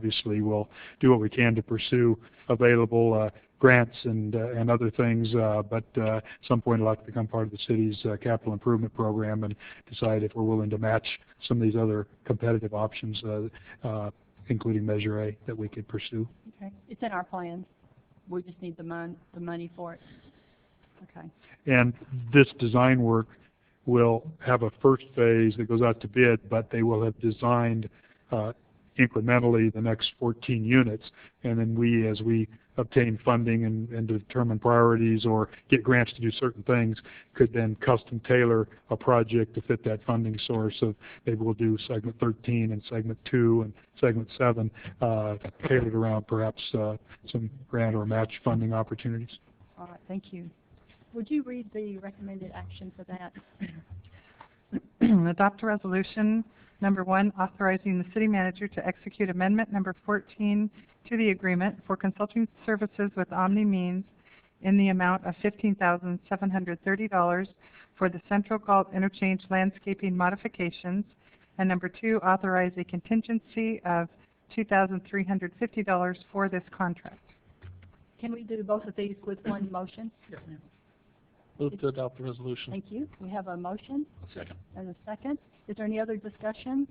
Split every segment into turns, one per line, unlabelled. obviously we'll do what we can to pursue available uh, grants and, uh, and other things, uh, but uh, at some point I'd like to become part of the city's uh, capital improvement program and decide if we're willing to match some of these other competitive options, uh, uh, including Measure A, that we could pursue.
Okay, it's in our plans. We just need the mon, the money for it. Okay,
And this design work will have a first phase that goes out to bid, but they will have designed uh, incrementally the next 14 units. And then we, as we obtain funding and and determine priorities or get grants to do certain things, could then custom tailor a project to fit that funding source of maybe we'll do segment 13 and segment 2 and segment 7, uh, tailored around perhaps uh, some grant or match funding opportunities.
all right, thank you. Would you read the recommended action for that?
Adopt a resolution, number one, authorizing the city manager to execute amendment number 14 to the agreement for consulting services with Omni Means in the amount of $15,730 for the Central Galt Interchange landscaping modifications. And number two, authorize a contingency of $2,350 for this contract.
Can we do both of these with one motion?
Move to adopt the resolution.
Thank you. We have a motion
Second.
and a second. Is there any other discussion?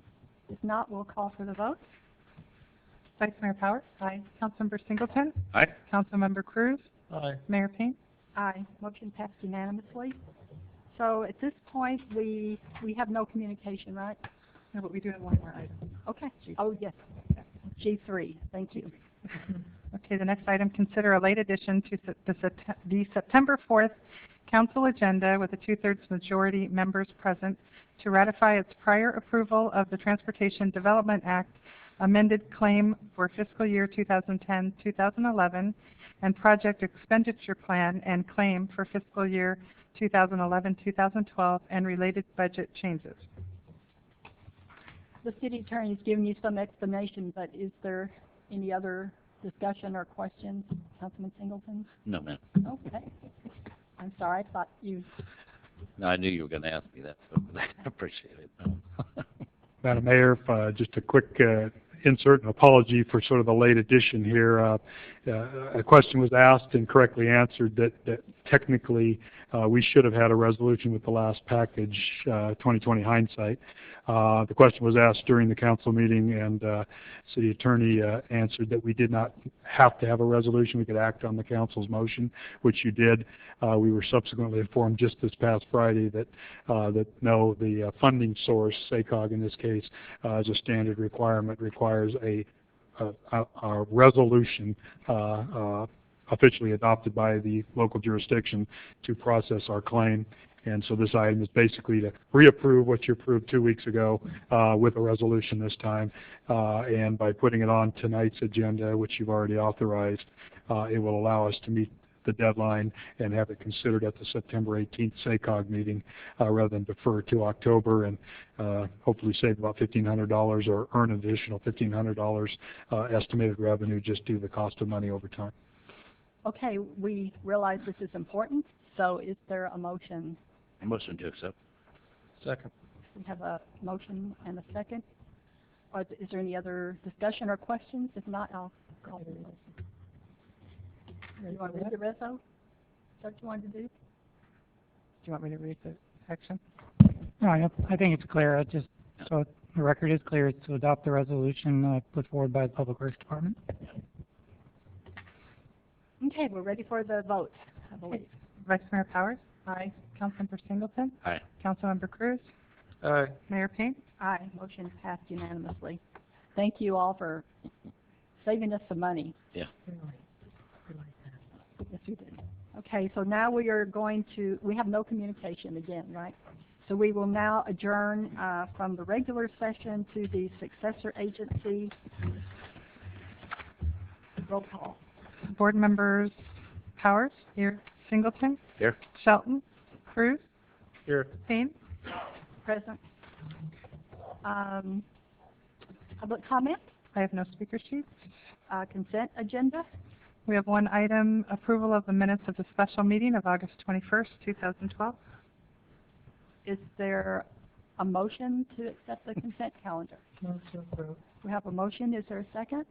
If not, we'll call for the vote.
Vice Mayor Powers? Aye. Councilmember Singleton?
Aye.
Councilmember Cruz?
Aye.
Mayor Payne?
Aye. Motion passed unanimously. So at this point, we, we have no communication, right?
No, but we do have one more item.
Okay. Oh, yes. G three, thank you.
Okay, the next item, consider a late addition to Sep- the Sept- the September 4th council agenda with a two-thirds majority members present to ratify its prior approval of the Transportation Development Act amended claim for fiscal year 2010-2011 and project expenditure plan and claim for fiscal year 2011-2012 and related budget changes.
The city attorney's given you some explanation, but is there any other discussion or questions, Councilman Singleton?
No, ma'am.
Okay. I'm sorry, I thought you,
No, I knew you were gonna ask me that, so I appreciate it.
Madam Mayor, if, uh, just a quick uh, insert and apology for sort of the late addition here. Uh, uh, A question was asked and correctly answered that that technically, uh, we should have had a resolution with the last package, uh, 2020 hindsight. Uh, The question was asked during the council meeting, and uh, city attorney uh, answered that we did not have to have a resolution. We could act on the council's motion, which you did. Uh, We were subsequently informed just this past Friday that uh, that no, the uh, funding source, SACOG in this case, uh, as a standard requirement, requires a, a- a, a resolution uh, uh, officially adopted by the local jurisdiction to process our claim. And so this item is basically to reapprove what you approved two weeks ago uh, with a resolution this time. Uh, And by putting it on tonight's agenda, which you've already authorized, uh, it will allow us to meet the deadline and have it considered at the September 18th SACOG meeting uh, rather than defer to October and uh, hopefully save about $1,500 or earn an additional $1,500 uh, estimated revenue just due to the cost of money over time.
okay, we realize this is important, so is there a motion?
Motion to accept.
Second.
We have a motion and a second. Or is there any other discussion or questions? If not, I'll call for the vote. You want to read the reso? Is that what you wanted to do?
Do you want me to read the section?
No, I, I think it's clear, I just, so the record is clear, it's to adopt the resolution, uh, put forward by the Public Works Department.
Okay, we're ready for the vote, I believe.
Vice Mayor Powers? Aye. Councilmember Singleton?
Aye.
Councilmember Cruz?
Aye.
Mayor Payne?
Aye, motion passed unanimously. Thank you all for saving us some money.
Yeah.
Yes, we did. Okay, so now we are going to, we have no communication again, right? So we will now adjourn, uh, from the regular session to the successor agency. Roll call.
Board members Powers? Here. Singleton?
Here.
Shelton? Cruz?
Here.
Payne?
Present. Um, public comment,
I have no speaker sheets.
uh, consent agenda.
We have one item, approval of the minutes of the special meeting of August 21st, 2012.
Is there a motion to accept the consent calendar?
Motion approved.
We have a motion, is there a second?